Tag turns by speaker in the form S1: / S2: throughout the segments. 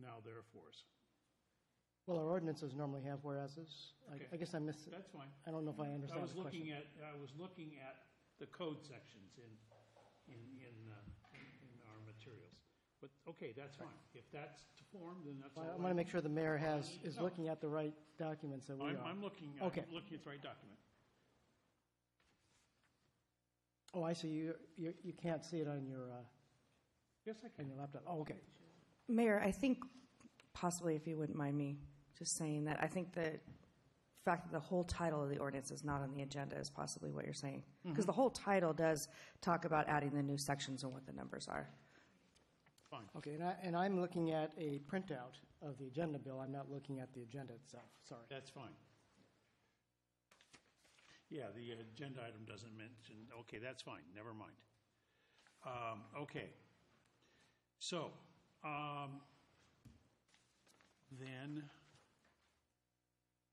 S1: now therefores.
S2: Well, our ordinances normally have whereases. I- I
S1: Okay.
S2: guess I missed,
S1: That's fine.
S2: I don't know if I
S1: I
S2: understand
S1: was
S2: the question.
S1: looking at, I was looking at the code sections in, in, in, uh, in in our materials. But, okay, that's fine. If that's the form, then that's all.
S2: I
S1: right.
S2: want to make sure the mayor has, is
S1: No.
S2: looking at the right documents that we
S1: I'm,
S2: are.
S1: I'm looking, I'm
S2: Okay.
S1: looking at the right document.
S2: Oh, I see, you, you you can't see it on your, uh,
S1: Yes, I
S2: on
S1: can.
S2: your laptop. Oh, okay.
S3: Mayor, I think possibly if you wouldn't mind me just saying that, I think the fact that the whole title of the ordinance is not on the agenda is possibly what you're saying. Because the whole title does talk about adding the new sections and what the numbers are.
S1: Fine.
S2: Okay, and I, and I'm looking at a printout of the agenda, Bill. I'm not looking at the agenda itself, sorry.
S1: That's fine. Yeah, the agenda item doesn't mention, okay, that's fine, never mind. Um, Okay. So, um, then,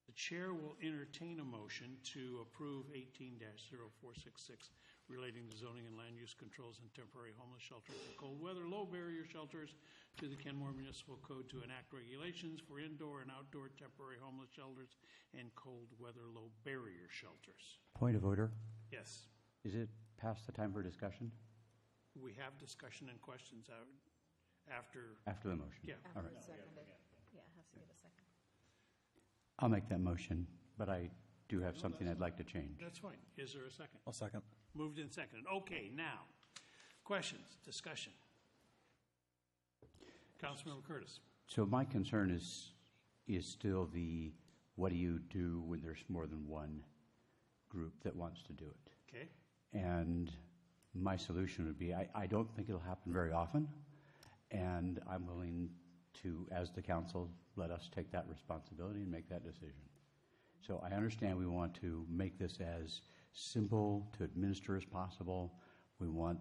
S1: the chair will entertain a motion to approve eighteen 466 relating to zoning and land use controls and temporary homeless shelters and cold weather, low barrier shelters to the Kenmore Municipal Code to enact regulations for indoor and outdoor temporary homeless shelters and cold weather, low barrier shelters.
S4: Point of order.
S1: Yes,
S4: Is it past the time for discussion?
S1: we have discussion and questions out after,
S4: After the motion?
S1: yeah.
S4: All right.
S5: Yeah, it has to give a second.
S4: I'll make that motion, but I do have something I'd like to change.
S1: That's fine. Is there a second?
S6: I'll second.
S1: Moved and seconded. Okay, now, questions, discussion? Councilmember Curtis.
S4: So my concern is, is still the, what do you do when there's more than one group that wants to do it?
S1: Okay,
S4: And my solution would be, I, I don't think it'll happen very often, and I'm willing to, as the council, let us take that responsibility and make that decision. So I understand we want to make this as simple to administer as possible. We want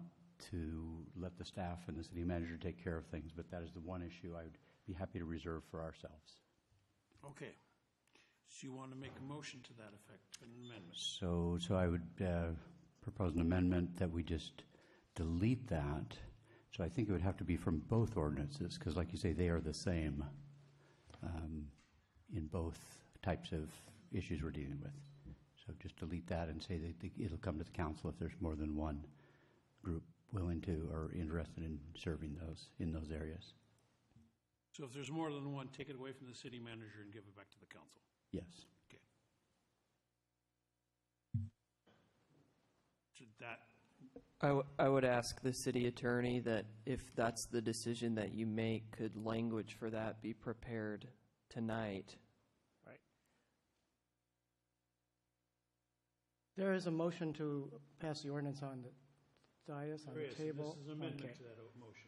S4: to let the staff and the city manager take care of things, but that is the one issue I would be happy to reserve for ourselves.
S1: okay. So you want to make a motion to that effect, an amendment?
S4: So, so I would uh, propose an amendment that we just delete that. So I think it would have to be from both ordinances, because like you say, they are the same um, in both types of issues we're dealing with. So just delete that and say that the- it'll come to the council if there's more than one group willing to or interested in serving those, in those areas.
S1: So if there's more than one, take it away from the city manager and give it back to the council.
S4: Yes.
S1: Okay. So that,
S7: I, w- I would ask the city attorney that if that's the decision that you make, could language for that be prepared tonight?
S2: There is a motion to pass the ordinance on the dais, on the
S1: this
S2: table.
S1: is amendment
S2: Okay.
S1: to that motion.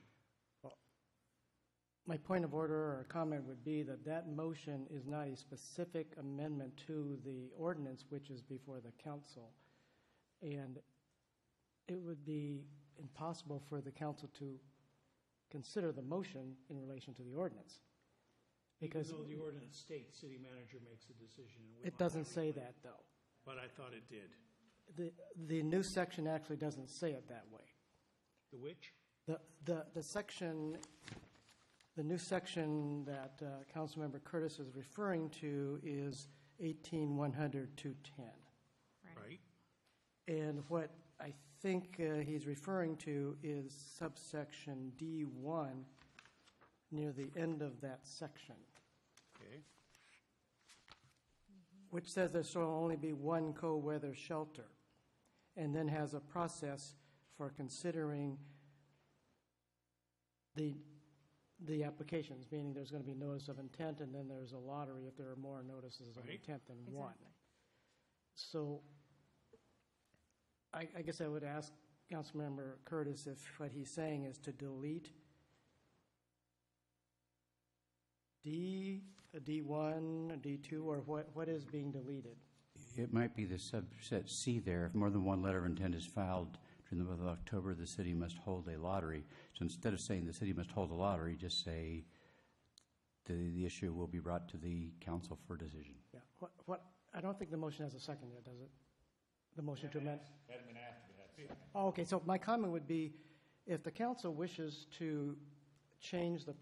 S2: My point of order or comment would be that that motion is not a specific amendment to the ordinance which is before the council. And it would be impossible for the council to consider the motion in relation to the ordinance. Because
S1: Even though the ordinance states city manager makes a decision. and we
S2: it
S1: want
S2: doesn't
S1: to-
S2: say that, though.
S1: But I thought it did.
S2: The, the new section actually doesn't say it that way.
S1: The which?
S2: The, the, the section, the new section that uh, Councilmember Curtis is referring to is 18-100-210.
S1: Right?
S2: And what I think uh, he's referring to is subsection D1 near the end of that section,
S1: Okay.
S2: which says there shall only be one co-weather shelter, and then has a process for considering the, the applications, meaning there's going to be notice of intent, and then there's a lottery if there are more notices of
S1: Right.
S2: intent than one. So I, I guess I would ask Councilmember Curtis if what he's saying is to delete D, D1, D2, or what, what is being deleted?
S4: It might be the subset C there. If more than one letter of intent is filed during the month of October, the city must hold a lottery. So instead of saying the city must hold a lottery, just say the, the issue will be brought to the council for decision.
S2: Yeah, what, what, I don't think the motion has a second yet, does it? The motion to amend? Oh, Okay, so my comment would be, if the council wishes to change the